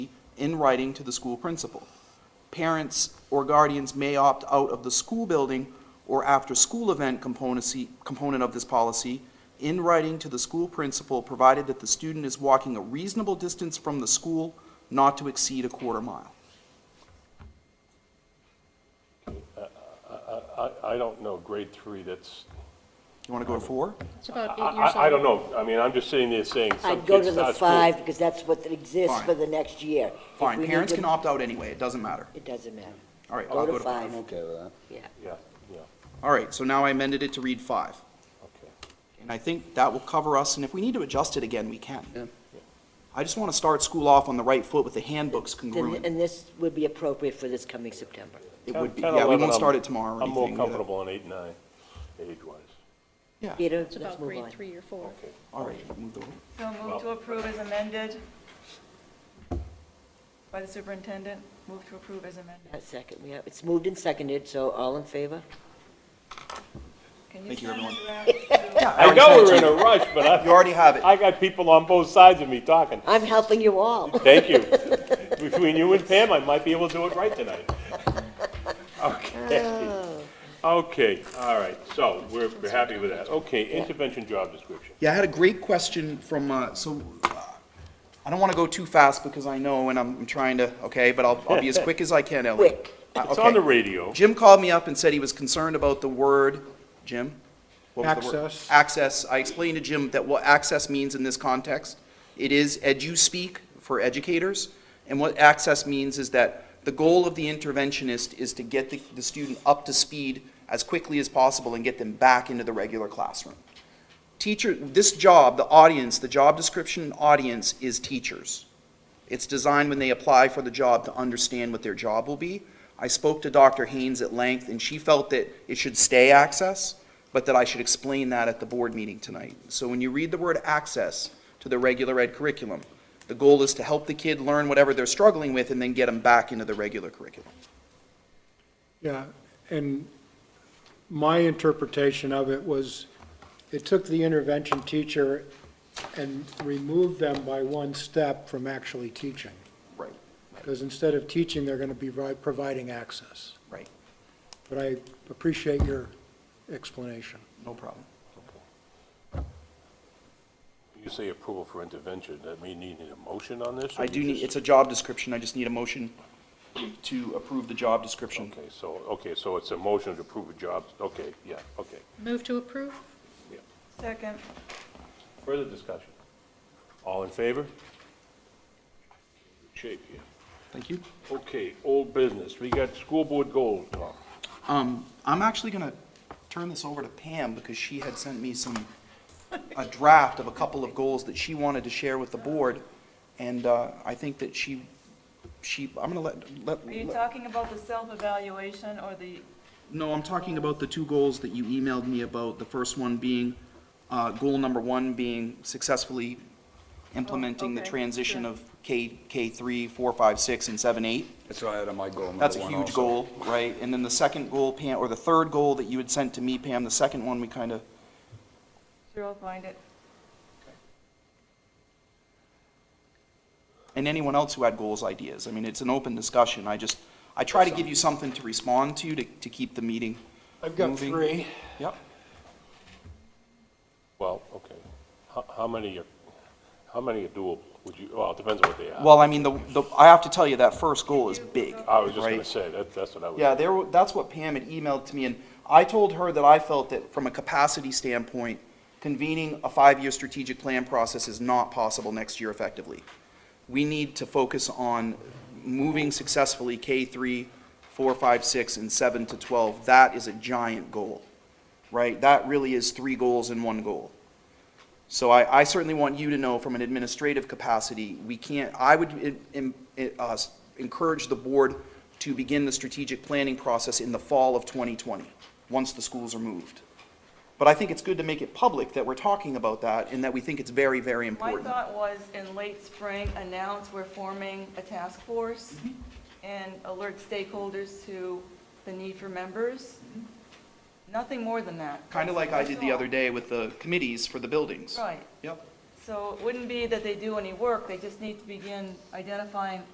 in writing to the school principal. Parents or guardians may opt out of the school building or after-school event componency- component of this policy in writing to the school principal, provided that the student is walking a reasonable distance from the school, not to exceed a quarter mile. I, I don't know, grade three, that's, You want to go to four? It's I, about eight years old. I, I don't know. I mean, I'm just sitting there saying some I'd go kids to the start school. five, because that's what exists Fine. for the next year. If we Fine, need parents to- can opt out anyway, it doesn't matter. It doesn't matter. All right, Go I'll to go to, five, I'm okay with that. yeah. Yeah, yeah, all right, so now I amended it to read five. okay. And I think that will cover us, and if we need to adjust it again, we Yeah. can. I just want to start school off on the right foot with the handbooks Then- congruent. And this would be appropriate for this coming September. It 10, would be, 10, yeah, we 11, won't start I'm- it tomorrow or um, I'm more anything. comfortable on eight, nine, age-wise. Yeah, Peter, It's let's about move grade on. three or four. Okay. all right, move the- So move to approve as amended by the superintendent. Move to approve as amended. A second, we have, it's moved and seconded, so all in favor? Can Thank you, send everyone. it around to- Yeah, I already know sent we're it in to a you. rush, but I. You already have it. I got people on both sides of me talking. I'm helping you all. Thank you. Between you and Pam, I might be able to do it right tonight. Okay. Okay, all right, so we're, we're happy with that. Okay, intervention job description. Yeah, I had a great question from, uh, so, uh, I don't want to go too fast because I know and I'm I'm trying to, okay, but I'll, I'll be as quick as I can, Ellie. Quick. Uh, It's on okay. the radio. Jim called me up and said he was concerned about the word, Jim? What was the word? Access. Access. I explained to Jim that what access means in this context. It is edu-speak for educators, and what access means is that the goal of the interventionist is to get the, the student up to speed as quickly as possible and get them back into the regular classroom. Teacher, this job, the audience, the job description and audience is teachers. It's designed when they apply for the job to understand what their job will be. I spoke to Dr. Haynes at length, and she felt that it should stay access, but that I should explain that at the board meeting tonight. So when you read the word access to the regular ed curriculum, the goal is to help the kid learn whatever they're struggling with and then get them back into the regular curriculum. Yeah, and my interpretation of it was, it took the intervention teacher and removed them by one step from actually teaching. Right, Because instead of teaching, they're going to be vi- providing access. right, But I appreciate your explanation. no problem. You say approval for intervention, that mean you need a motion on this? or I you do need, it's just- a job description, I just need a motion to approve the job description. Okay, so, okay, so it's a motion to approve a job, okay, yeah, okay. Move to approve? Second. Further discussion? All in favor? Shape here. Thank you. Okay, old business, we got school board goals, Tom. Um, I'm actually gonna turn this over to Pam because she had sent me some, a draft of a couple of goals that she wanted to share with the board. And, uh, I think that she, she, I'm gonna let, let. Are you let- talking about the self-evaluation or the, No, I'm talking about the two goals that you emailed me about. The first one being, uh, goal number one being successfully implementing the okay, transition yeah. of K, K three, four, five, six, and seven, eight. That's why I had on my goal number one That's a huge also. goal, right? And then the second goal, Pam, or the third goal that you had sent to me, Pam, the second one, we kind of sure, I'll find it. and anyone else who had goals, ideas. I mean, it's an open discussion. I just, I try to give you something to respond to, to, to keep the meeting. I've got moving. three. Yep. Well, okay, how, how many are, how many are doable? Would you, well, it depends on what they are. Well, I mean, the, the, I have to tell you, that first goal is big. I was just gonna right? say, that, that's what I was. Yeah, there, were- that's what Pam had emailed to me, and I told her that I felt that from a capacity standpoint, convening a five-year strategic plan process is not possible next year effectively. We need to focus on moving successfully K three, four, five, six, and seven to twelve. That is a giant goal, right? That really is three goals in one goal. So I, I certainly want you to know from an administrative capacity, we can't, I would en- en- en- uh, s- encourage the board to begin the strategic planning process in the fall of 2020, once the schools are moved. But I think it's good to make it public that we're talking about that and that we think it's very, very My important. thought was in late spring, announce we're forming a task force Mm-hmm. and alert stakeholders to the need for members. Nothing more than that. Kind of Mm-hmm. like I did the That's all. other day with the committees for the buildings. Right. Yep. So it wouldn't be that they do any work, they just need to begin identifying